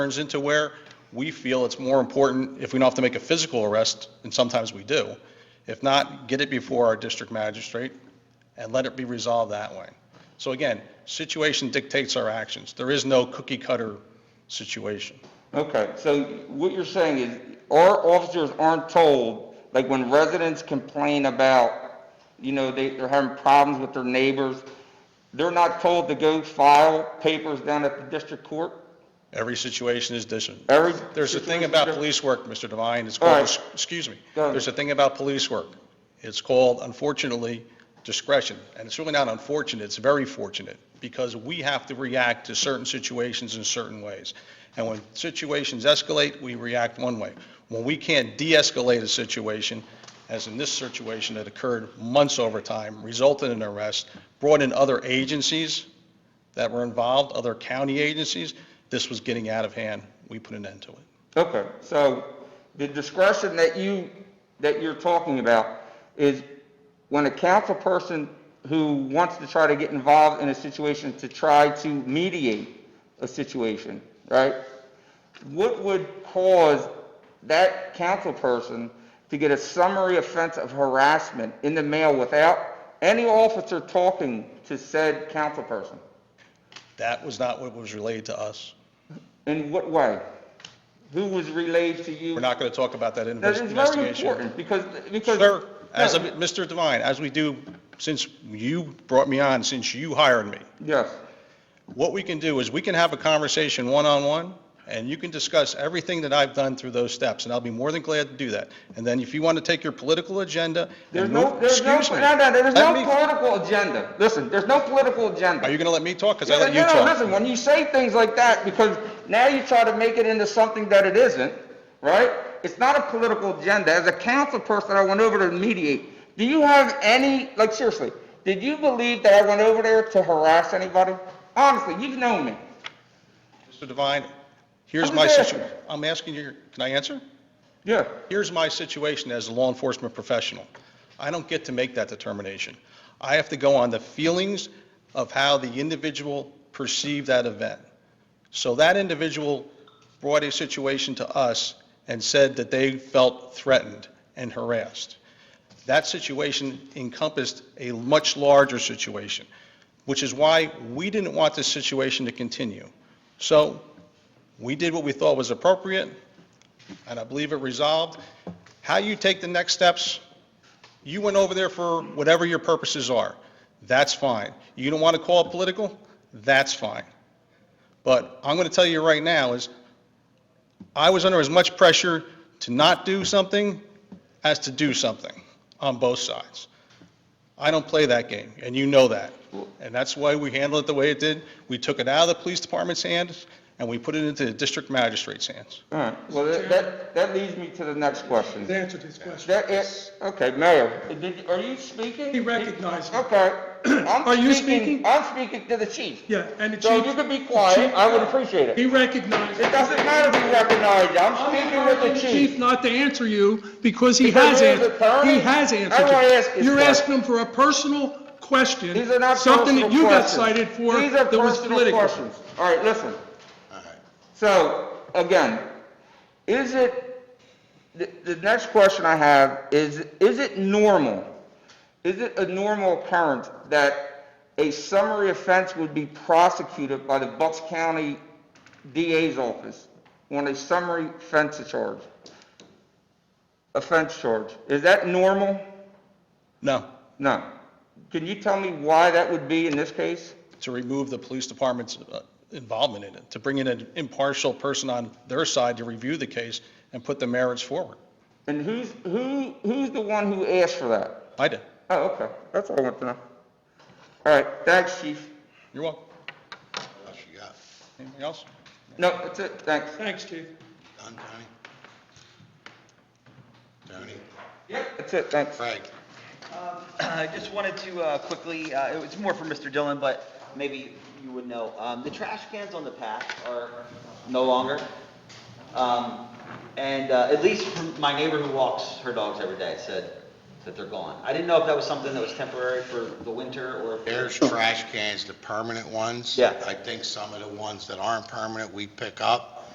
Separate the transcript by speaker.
Speaker 1: turns into where we feel it's more important, if we don't have to make a physical arrest, and sometimes we do. If not, get it before our district magistrate and let it be resolved that way. So again, situation dictates our actions. There is no cookie cutter situation.
Speaker 2: Okay, so what you're saying is, our officers aren't told, like when residents complain about, you know, they, they're having problems with their neighbors, they're not told to go file papers down at the district court?
Speaker 1: Every situation is different.
Speaker 2: Every.
Speaker 1: There's a thing
Speaker 2: situation's
Speaker 1: about
Speaker 2: different?
Speaker 1: police work, Mr. Devine, it's
Speaker 2: All
Speaker 1: called,
Speaker 2: right.
Speaker 1: excuse me,
Speaker 2: Go ahead.
Speaker 1: there's a thing about police work. It's called, unfortunately, discretion. And it's really not unfortunate, it's very fortunate, because we have to react to certain situations in certain ways. And when situations escalate, we react one way. When we can't de-escalate a situation, as in this situation that occurred months over time, resulted in an arrest, brought in other agencies that were involved, other county agencies, this was getting out of hand. We put an end to it.
Speaker 2: Okay, so the discretion that you, that you're talking about is when a council person who wants to try to get involved in a situation to try to mediate a situation, right? What would cause that council person to get a summary offense of harassment in the mail without any officer talking to said council person?
Speaker 1: That was not what was relayed to us.
Speaker 2: In what way? Who was relayed to you?
Speaker 1: We're not going to talk about that in-
Speaker 2: That is very
Speaker 1: investigation.
Speaker 2: important, because, because.
Speaker 1: Sir, as, a-
Speaker 2: No,
Speaker 1: Mr. Devine, as we do, since you brought me on, since you hired me,
Speaker 2: Yes,
Speaker 1: what we can do is we can have a conversation one-on-one, and you can discuss everything that I've done through those steps, and I'll be more than glad to do that. And then if you want to take your political agenda
Speaker 2: there's
Speaker 1: and
Speaker 2: no,
Speaker 1: move,
Speaker 2: there's no,
Speaker 1: excuse me.
Speaker 2: no, no, there's
Speaker 1: Let
Speaker 2: no
Speaker 1: me-
Speaker 2: political agenda. Listen, there's no political agenda.
Speaker 1: Are you going to let me talk? Because I
Speaker 2: Yeah,
Speaker 1: let you
Speaker 2: No, no,
Speaker 1: talk.
Speaker 2: listen, when you say things like that, because now you try to make it into something that it isn't, right? It's not a political agenda. As a council person, I went over to mediate. Do you have any, like seriously, did you believe that I went over there to harass anybody? Honestly, you've known me.
Speaker 1: Mr. Devine, here's
Speaker 2: I'm
Speaker 1: my
Speaker 2: just
Speaker 1: situation.
Speaker 2: asking.
Speaker 1: I'm asking you, can I answer?
Speaker 2: Yeah.
Speaker 1: here's my situation as a law enforcement professional. I don't get to make that determination. I have to go on the feelings of how the individual perceived that event. So that individual brought a situation to us and said that they felt threatened and harassed. That situation encompassed a much larger situation, which is why we didn't want this situation to continue. So we did what we thought was appropriate, and I believe it resolved. How you take the next steps, you went over there for whatever your purposes are. That's fine. You don't want to call it political? That's fine. But I'm going to tell you right now is, I was under as much pressure to not do something as to do something on both sides. I don't play that game, and you know that. And that's why we handled it the way it did. We took it out of the police department's hands, and we put it into the district magistrate's hands.
Speaker 2: All right, well, that- that, that leads me to the next question.
Speaker 3: He's answered his question.
Speaker 2: That is, okay, Mayor, did, are you speaking?
Speaker 3: He recognized it.
Speaker 2: Okay. I'm
Speaker 3: Are you speaking?
Speaker 2: I'm speaking to the chief.
Speaker 3: Yeah, and the chief...
Speaker 2: So if you could be quiet, I would appreciate
Speaker 3: He
Speaker 2: it.
Speaker 3: recognized...
Speaker 2: It doesn't matter if you recognize, I'm speaking with the
Speaker 3: Chief
Speaker 2: chief.
Speaker 3: not to answer you because he
Speaker 2: Because
Speaker 3: has
Speaker 2: he is
Speaker 3: answered,
Speaker 2: attorney?
Speaker 3: he has answered
Speaker 2: I wanna ask
Speaker 3: you.
Speaker 2: his
Speaker 3: You're
Speaker 2: question.
Speaker 3: asking him for a personal question.
Speaker 2: These are not
Speaker 3: Something that
Speaker 2: personal
Speaker 3: you got
Speaker 2: questions.
Speaker 3: cited for
Speaker 2: These are
Speaker 3: that was
Speaker 2: personal
Speaker 3: political.
Speaker 2: questions. All right, listen. So, again, is it, the, the next question I have is, is it normal? Is it a normal occurrence that a summary offense would be prosecuted by the Bucks County DA's office on a summary offense charge? Offense charge, is that normal?
Speaker 1: No,
Speaker 2: No. Can you tell me why that would be in this case?
Speaker 1: to remove the police department's uh, involvement in it, to bring in an impartial person on their side to review the case and put the merits forward.
Speaker 2: And who's, who, who's the one who asked for that?
Speaker 1: I did.
Speaker 2: Oh, okay, that's all I want to know. All right, thanks, chief.
Speaker 1: You're welcome.
Speaker 4: What else you got?
Speaker 1: Anything else?
Speaker 2: No, that's it, thanks.
Speaker 3: Thanks, Chief.
Speaker 4: Done, Tony? Tony?
Speaker 2: That's it, thanks.
Speaker 4: Frank?
Speaker 5: Uh, I just wanted to uh, quickly, uh, it was more for Mr. Dillon, but maybe you would know. Um, The trash cans on the path are no longer. Um, And uh, at least from my neighbor who walks her dogs every day said that they're gone. I didn't know if that was something that was temporary for the winter or if
Speaker 4: There's trash cans, the permanent ones.
Speaker 5: Yeah.
Speaker 4: I think some of the ones that aren't permanent, we pick up.